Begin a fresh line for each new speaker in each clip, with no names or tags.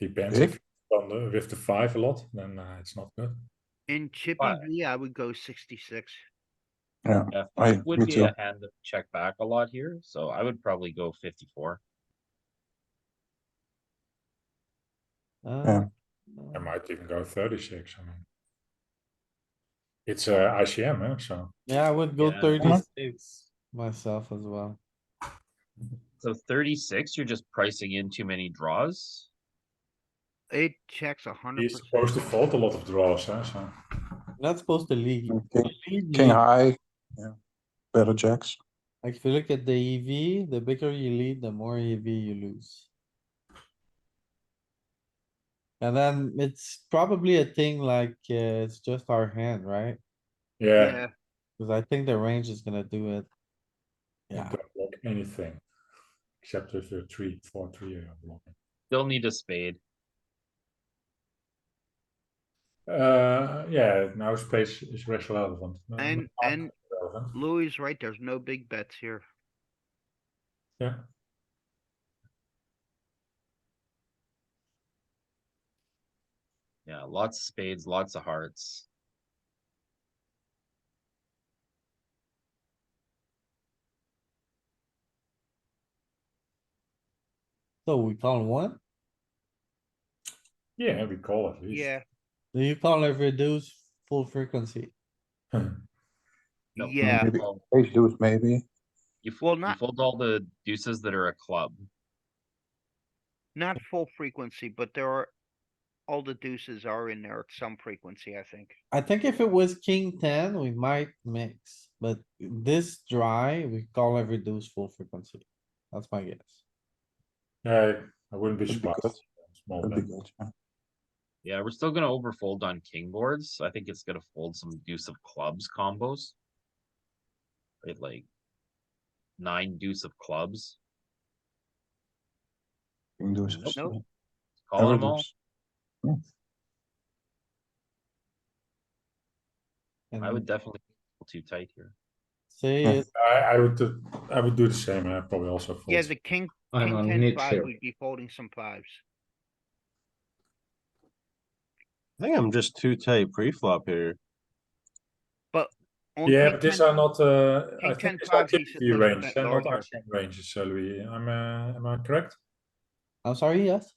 Depends
Rick?
if on the, eh, with the five a lot, then uh, it's not good.
In Chippy
But-
V, I would go sixty-six.
Yeah,
I-
it would
me
be
too.
a hand that check back a lot here, so I would probably go fifty-four.
Yeah.
Uh,
I might even go 36. I mean, it's uh, ICM, eh? so
Yeah, I would go
Yeah.
thirty-six myself as well.
So thirty-six, you're just pricing in too many draws.
It checks a hundred
he's supposed to
percent.
fold a lot of draws. Eh? So
Not supposed to lead.
King,
Lead,
king
lead.
high, yeah, better jacks.
Like if you look at the EV, the bigger you lead, the more EV you lose. And then it's probably a thing like, uh, it's just our hand, right?
yeah,
Yeah,
Cause I think the range is gonna do it.
you
Yeah,
don't block anything except if you're three, four, three are blocking.
They'll need a spade.
Uh, yeah, now space is less relevant. No,
and,
no,
and
relevant.
Louis is right, there's no big bets here.
yeah,
Yeah, lots of spades, lots of hearts.
so we call one,
yeah, we call at least.
Yeah,
do you call every reduce full frequency?
No,
yeah,
Maybe
well,
ace deuce maybe,
You f-
Well,
you
not-
fold all the deuces that are a club.
not full frequency, but there are, all the deuces are in there at some frequency, I think.
I think if it was king ten, we might mix, but this dry, we call every deuce full frequency. That's my guess.
yeah, I wouldn't be
That'd be
surprised.
good.
Small
that'd be
bet.
good, yeah.
Yeah, we're still gonna overfold on king boards. I think it's gonna fold some deuce of clubs combos. Right, like nine deuce of clubs,
King deuce. is-
Nope.
call
ever
them all.
deuce.
I would
And
definitely fold too tight here.
say
Hmm.
it's
I, I would, do- I would do the same. I probably also fold.
Yeah, the king,
I'm
king
on
ten
mid
five
here.
would be folding some fives.
I think I'm just too tight pre-flop here.
On
Yeah,
king
but these
10
are not, uh, I
King
think
10
these are
five, he should
TPV
put it
range,
back
they're not
larger.
ICM ranges, uh, Louis, am, uh, am I correct?
I'm sorry, yes,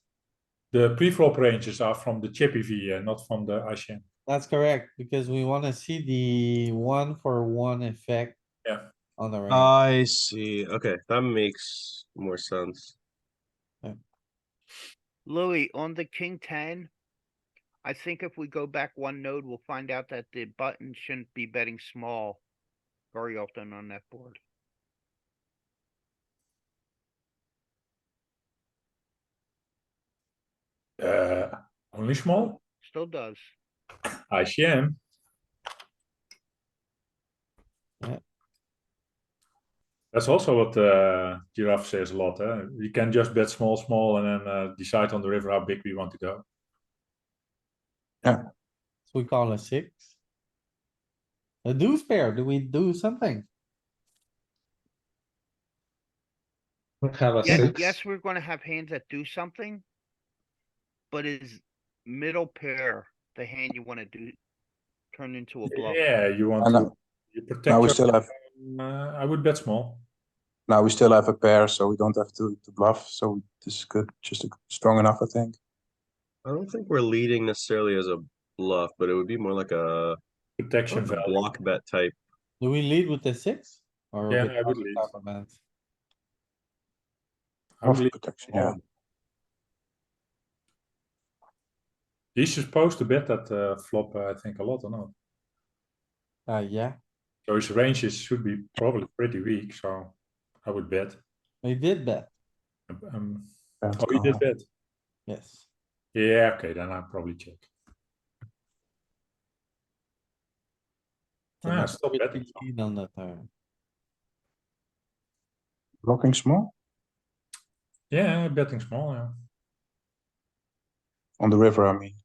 The pre-flop ranges are from the Chippy V, uh, not from the ICM.
that's correct, because we wanna see the one for one effect.
Yeah.
On
Uh,
the range,
I see. Okay, that makes more sense.
Louis, on the king ten, I think if we go back one node, we'll find out that the button shouldn't be betting small very often on that board.
Uh, only small,
Still does.
ICM,
Yeah.
that's also what, uh, Giraffe says a lot, eh, we can just bet small, small, and then, uh, decide on the river how big we want to go.
so we call a six. A deuce pair, do we do something?
Have a
Yes,
six.
yes, we're gonna have hands that do something. But is middle pair the hand you wanna do turn into a bluff?
Yeah, you want
And
to,
now-
you
now we
protect
still
your,
have,
uh, I would bet small.
now we still have a pair, so we don't have to to bluff, so this is good, just a- strong enough, I think.
I don't think we're leading necessarily as a bluff, but it would be more like a more
Protection
like a
value.
block bet type.
Do we lead with the six? Or
Yeah,
with
I would
other
lead.
type of hands?
I would
Of
leave
protection,
small.
yeah.
He's supposed to bet that uh, flop, uh, I think, a lot or not.
Uh, yeah,
So his ranges should be probably pretty weak. So I would bet.
we did bet,
Um,
Yeah,
oh, you did bet.
yes.
Yeah, okay, then I'll probably check.
So
Yeah,
that's
stop
pretty
Ah, betting.
lead On the turn,
Blocking small
Yeah, betting small. Yeah.
on the river, I mean.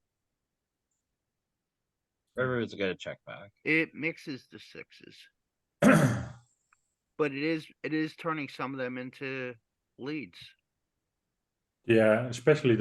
Everyone's gonna check back.
It mixes the sixes, but it is, it is turning some of them into leads.
yeah, especially